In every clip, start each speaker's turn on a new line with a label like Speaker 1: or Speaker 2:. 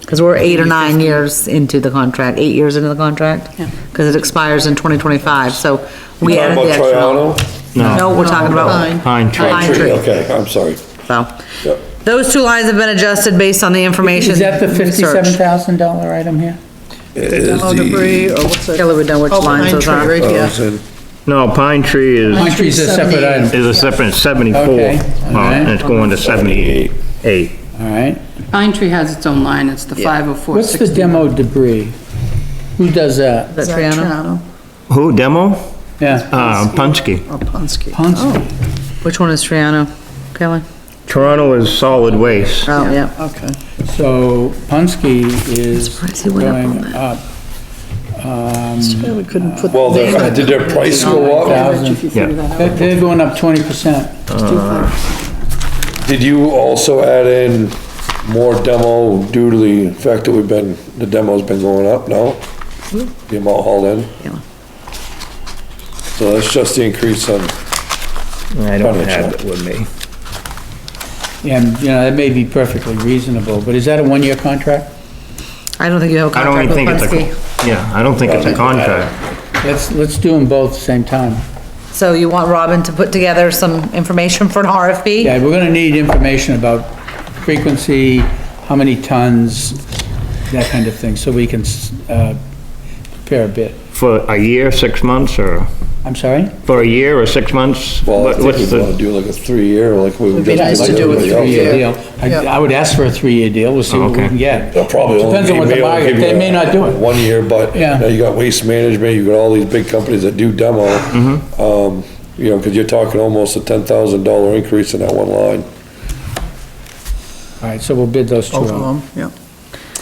Speaker 1: Because we're eight or nine years into the contract, eight years into the contract.
Speaker 2: Yeah.
Speaker 1: Because it expires in 2025, so we
Speaker 3: Talking
Speaker 1: added the
Speaker 3: about
Speaker 1: extra.
Speaker 3: Triano?
Speaker 1: No,
Speaker 4: No,
Speaker 1: we're talking
Speaker 2: Pine.
Speaker 1: about.
Speaker 4: pine tree.
Speaker 1: Pine tree.
Speaker 3: Okay, I'm sorry.
Speaker 1: So,
Speaker 3: Yep.
Speaker 1: those two lines have been adjusted based on the information.
Speaker 5: Is that the
Speaker 1: research.
Speaker 5: fifty-seven thousand dollar item here?
Speaker 3: Is
Speaker 2: Oh, debris, or what's that?
Speaker 1: Kelly would know which
Speaker 2: Oh,
Speaker 1: lines
Speaker 2: pine
Speaker 1: those
Speaker 2: tree,
Speaker 1: are.
Speaker 2: right, yeah.
Speaker 3: the-
Speaker 4: No, pine tree is,
Speaker 5: Pine tree's a separate item,
Speaker 4: is a separate seventy-four.
Speaker 5: Okay,
Speaker 4: Well,
Speaker 5: alright.
Speaker 4: and it's going to seventy-eight.
Speaker 5: all right.
Speaker 6: Pine Tree has its own line, it's the 504.
Speaker 5: What's the demo debris? Who does that?
Speaker 1: Is that Triano?
Speaker 4: Who, demo?
Speaker 5: Yeah,
Speaker 4: Uh, Punske.
Speaker 2: Or Punske.
Speaker 5: Punske.
Speaker 1: Which one is Triano, Kelly?
Speaker 4: Toronto is solid waste.
Speaker 1: Oh, yeah.
Speaker 2: Okay.
Speaker 5: So Punske is
Speaker 1: surprised he went up on
Speaker 5: going up. Um,
Speaker 2: Yeah, we couldn't put.
Speaker 3: Well,
Speaker 2: the
Speaker 3: their-
Speaker 2: name.
Speaker 3: did their price go up?
Speaker 5: thousand.
Speaker 6: If you figure that out.
Speaker 5: They're they're going up twenty percent.
Speaker 3: Did you also add in more demo due to the fact that we've been, the demo's been going up, no? The amount hauled in?
Speaker 1: Yeah.
Speaker 3: So that's just the increase on,
Speaker 4: I don't have it with me.
Speaker 5: And, you know, that may be perfectly reasonable, but is that a one-year contract?
Speaker 1: I don't think you have a
Speaker 4: I don't
Speaker 1: contract
Speaker 4: even
Speaker 1: with
Speaker 4: think it's
Speaker 1: Punske.
Speaker 4: a, yeah, I don't think it's a contract.
Speaker 5: Let's, let's do them both at the same time.
Speaker 1: So you want Robin to put together some information for an RFP?
Speaker 5: Yeah, we're gonna need information about frequency, how many tons, that kind of thing, so we can, uh, prepare a bit.
Speaker 4: For a year, six months, or,
Speaker 5: I'm sorry?
Speaker 4: for a year or six months?
Speaker 3: well, I
Speaker 4: What-
Speaker 3: think
Speaker 4: What's
Speaker 3: we'd wanna
Speaker 4: the,
Speaker 3: do like a three-year, like we
Speaker 2: It'd
Speaker 3: just.
Speaker 2: be nice
Speaker 3: like
Speaker 2: to do a
Speaker 3: everybody else.
Speaker 2: three-year.
Speaker 5: Three-year deal. I, I would ask for a three-year deal, we'll see what we
Speaker 4: Okay.
Speaker 5: can get.
Speaker 3: They'll probably only
Speaker 5: Depends on what
Speaker 3: be
Speaker 5: the
Speaker 3: able to
Speaker 5: market,
Speaker 3: give you
Speaker 5: they may not do it.
Speaker 3: One year, but
Speaker 5: Yeah.
Speaker 3: now you got waste management, you got all these big companies that do demo.
Speaker 5: Mm-hmm.
Speaker 3: Um, you know, cause you're talking almost a ten thousand dollar increase in that one line.
Speaker 5: All right, so we'll bid those two
Speaker 2: Both
Speaker 5: out.
Speaker 2: of them,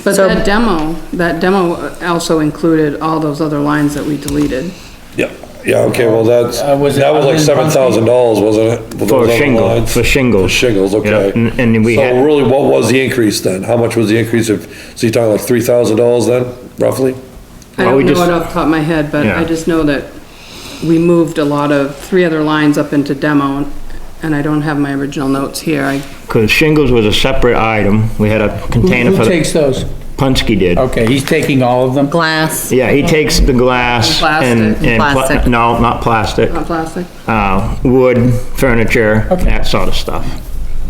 Speaker 6: But
Speaker 1: So-
Speaker 6: that demo, that demo also included all those other lines that we deleted.
Speaker 3: Yeah, yeah, okay, well, that's,
Speaker 5: Uh,
Speaker 3: that
Speaker 5: was
Speaker 3: was
Speaker 5: it
Speaker 3: like
Speaker 5: other
Speaker 3: seven
Speaker 5: than
Speaker 3: thousand dollars, wasn't it? With those
Speaker 4: for
Speaker 3: other
Speaker 4: shingle,
Speaker 3: lines?
Speaker 4: for shingles?
Speaker 3: Shingles, okay.
Speaker 4: Yeah, and- And we
Speaker 3: So
Speaker 4: had,
Speaker 3: really, what was the increase then? How much was the increase of, so you're talking like three thousand dollars then, roughly?
Speaker 6: I
Speaker 4: Well, we
Speaker 6: don't know
Speaker 4: just-
Speaker 6: it off the top of my head, but
Speaker 4: Yeah.
Speaker 6: I just know that we moved a lot of, three other lines up into demo, and I don't have my original notes here. I
Speaker 4: because shingles was a separate item, we had a
Speaker 5: Who-
Speaker 4: container
Speaker 5: Who
Speaker 4: for, the
Speaker 5: takes those?
Speaker 4: Punske did.
Speaker 5: Okay, he's taking all of them?
Speaker 1: Glass,
Speaker 4: Yeah, he takes the glass and,
Speaker 6: And plastic.
Speaker 4: and, pla-
Speaker 1: Plastic.
Speaker 4: no, not plastic,
Speaker 6: Not plastic.
Speaker 4: uh, wood, furniture, that sort of stuff.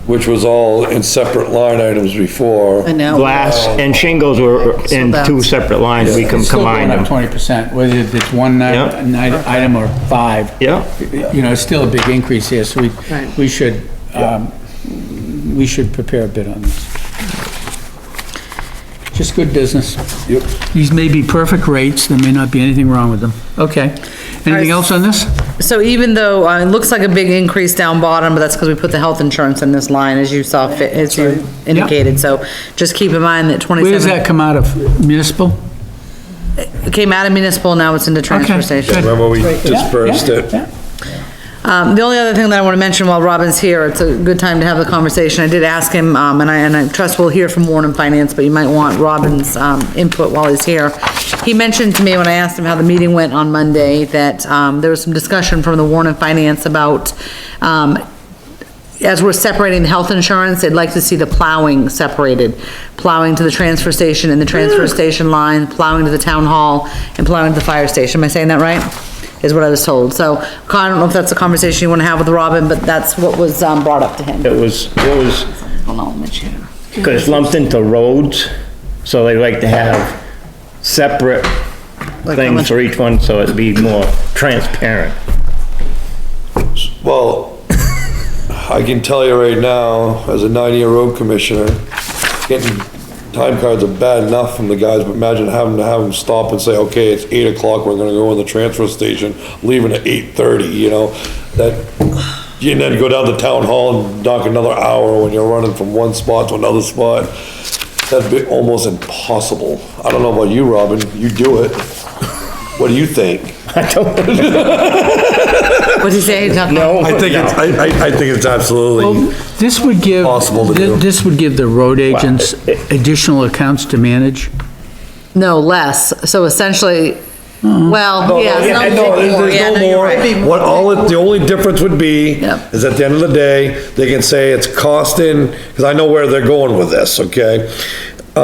Speaker 3: Which was all in separate line items before.
Speaker 2: yeah. And
Speaker 1: Oh,
Speaker 2: now.
Speaker 4: Glass and shingles were in
Speaker 2: So
Speaker 4: two
Speaker 2: that's-
Speaker 4: separate lines, we com-
Speaker 5: It's still going
Speaker 4: combined
Speaker 5: up
Speaker 4: them.
Speaker 5: twenty percent, whether it's one ni-
Speaker 4: Yeah.
Speaker 5: ni- item or five.
Speaker 4: Yeah,
Speaker 5: You know, it's still a big increase here, so we,
Speaker 6: Right.
Speaker 5: we should, um, we should prepare a bit on this. Just good business.
Speaker 3: Yep.
Speaker 5: These may be perfect rates, there may not be anything wrong with them. Okay. Anything else on this?
Speaker 1: so even though, uh, it looks like a big increase down bottom, but that's because we put the health insurance in this line, as you saw fit, as you indicated, so just keep in mind that
Speaker 5: Where does
Speaker 1: twenty-seven,
Speaker 5: that come out of? Municipal?
Speaker 1: it came out of municipal, now it's into transfer
Speaker 5: Okay,
Speaker 1: station.
Speaker 5: good.
Speaker 3: Remember, we
Speaker 5: Yeah,
Speaker 3: dispersed
Speaker 5: yeah,
Speaker 3: it.
Speaker 5: yeah.
Speaker 1: Um, the only other thing that I want to mention while Robin's here, it's a good time to have the conversation. I did ask him, um, and I, and I trust we'll hear from Warren and Finance, but you might want Robin's, um, input while he's here. He mentioned to me when I asked him how the meeting went on Monday, that, um, there was some discussion from the Warren and Finance about, um, as we're separating the health insurance, they'd like to see the plowing separated. Plowing to the transfer station and the transfer station line, plowing to the town hall, and plowing to the fire station. Am I saying that right? Is what I was told. So, I don't know if that's a conversation you wanna have with Robin, but that's what was, um, brought up to him.
Speaker 4: it was, it was,
Speaker 1: Hold on, let me check.
Speaker 4: because it's lumped into roads, so they like to have separate
Speaker 1: Like how
Speaker 4: things
Speaker 1: much-
Speaker 4: for each one, so it'd be more transparent.
Speaker 3: Well, I can tell you right now, as a nine-year road commissioner, getting time cards are bad enough from the guys, but imagine having to have them stop and say, okay, it's eight o'clock, we're gonna go in the transfer station, leaving at eight-thirty, you know? That, you then go down to town hall and knock another hour when you're running from one spot to another spot. That'd be almost impossible. I don't know about you, Robin, you do it. What do you think?
Speaker 1: What'd he say? He's not-
Speaker 3: I think it's, I, I, I think it's absolutely.
Speaker 5: This would give.
Speaker 3: Possible to
Speaker 5: thi-
Speaker 3: do.
Speaker 5: This would give the road agents additional accounts to manage.
Speaker 1: No, less. So essentially, well, yeah.
Speaker 3: Yeah,
Speaker 1: some-
Speaker 3: Hmm. no, there's- there's
Speaker 1: yeah,
Speaker 3: no
Speaker 1: no, you're
Speaker 3: more.
Speaker 1: right.
Speaker 3: What all, it- the only difference would be,
Speaker 1: Yep.
Speaker 3: is at the end of the day, they can say it's costing, because I know where they're going with this, okay?